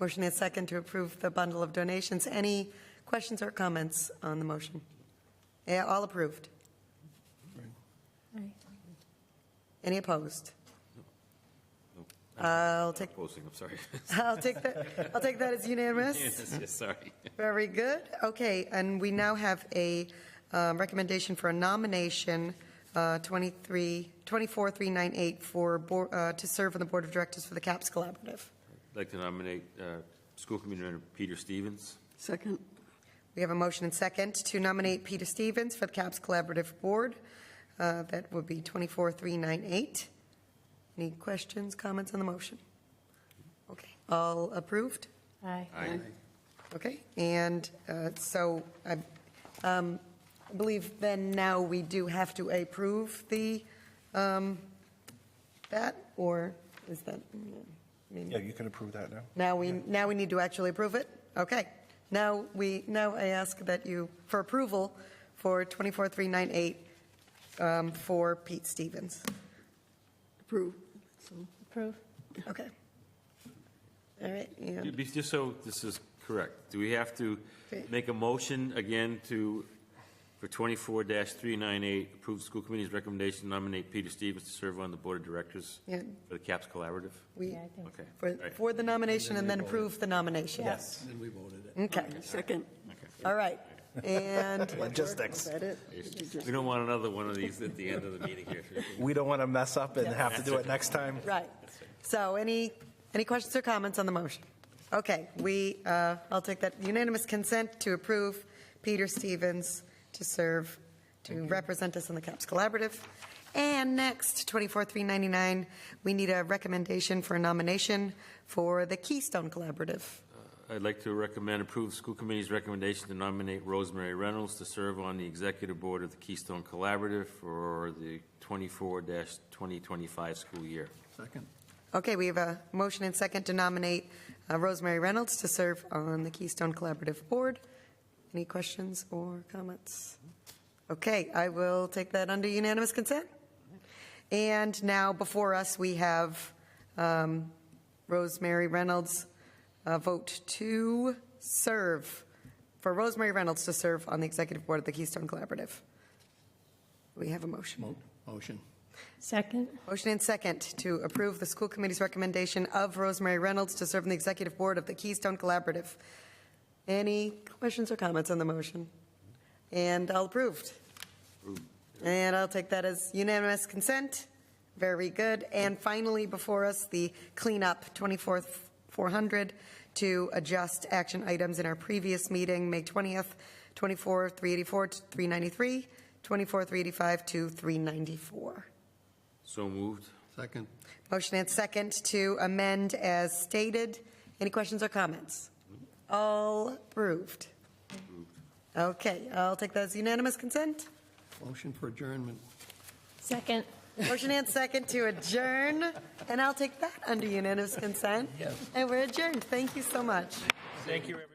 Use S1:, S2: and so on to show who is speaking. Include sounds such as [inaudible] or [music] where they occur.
S1: Motion made second to approve the bundle of donations. Any questions or comments on the motion? Yeah, all approved. Any opposed? I'll take,
S2: Posting, I'm sorry.
S1: I'll take that, I'll take that as unanimous.
S2: [laughs] Yes, yes, sorry.
S1: Very good. Okay, and we now have a um, recommendation for a nomination, uh, 23, 24398, for, board- uh, to serve on the Board of Directors for the CAPS Collaborative.
S2: I'd like to nominate uh, School Committee Member Peter Stevens.
S3: Second,
S1: We have a motion and second to nominate Peter Stevens for the CAPS Collaborative Board. Uh, That would be 24398. Any questions, comments on the motion? Okay, all approved?
S4: Aye.
S2: Aye.
S1: Okay, and uh, so I um, I believe then now we do have to approve the, um, that, or is that? mm, I mean,
S5: Yeah, you can approve that now.
S1: Now we, now we need to actually approve it? Okay. Now we, now I ask that you, for approval for 24398 um, for Pete Stevens.
S3: approve. So,
S4: Approve?
S1: Okay. All right,
S2: Be-
S1: and
S2: be- Just so this is correct, do we have to
S1: Okay.
S2: make a motion again to, for 24-398, approve the school committee's recommendation to nominate Peter Stevens to serve on the Board of Directors
S1: Yeah.
S2: for the CAPS Collaborative?
S1: we,
S4: Yeah, I think.
S2: Okay.
S1: for,
S2: all right.
S1: for the nomination and then approve the nomination.
S4: Yes.
S6: Then we voted it.
S1: Okay,
S3: Second,
S1: all
S2: [laughs]
S1: right. And
S5: Logistics.
S2: We don't want another one of these at the end of the meeting here.
S1: [laughs]
S5: We don't want to mess up and have to do it next time.
S1: Right. So any, any questions or comments on the motion? Okay, we, uh, I'll take that unanimous consent to approve Peter Stevens to serve, to represent us on the CAPS Collaborative. And next, 24399, we need a recommendation for a nomination for the Keystone Collaborative.
S2: I'd like to recommend approve the school committee's recommendation to nominate Rosemary Reynolds to serve on the executive board of the Keystone Collaborative for the 24-2025 school year.
S6: Second.
S1: Okay, we have a motion and second to nominate uh, Rosemary Reynolds to serve on the Keystone Collaborative Board. Any questions or comments? Okay, I will take that under unanimous consent. And now before us, we have um, Rosemary Reynolds, uh, vote to serve, for Rosemary Reynolds to serve on the Executive Board of the Keystone Collaborative. We have a motion.
S6: Mo- Motion.
S4: Second?
S1: Motion and second to approve the school committee's recommendation of Rosemary Reynolds to serve on the executive board of the Keystone Collaborative. Any questions or comments on the motion? And all approved. And I'll take that as unanimous consent. Very good. And finally, before us, the cleanup, 24,400, to adjust action items in our previous meeting, May 20th, 24,384 to 393, 24,385 to 394.
S2: So moved.
S6: Second.
S1: Motion and second to amend as stated. Any questions or comments? All approved. Okay, I'll take that as unanimous consent.
S6: Motion for adjournment.
S4: Second.
S1: Motion and second to adjourn, and I'll take that under unanimous consent. And we're adjourned. Thank you so much.
S2: Thank you, everyone.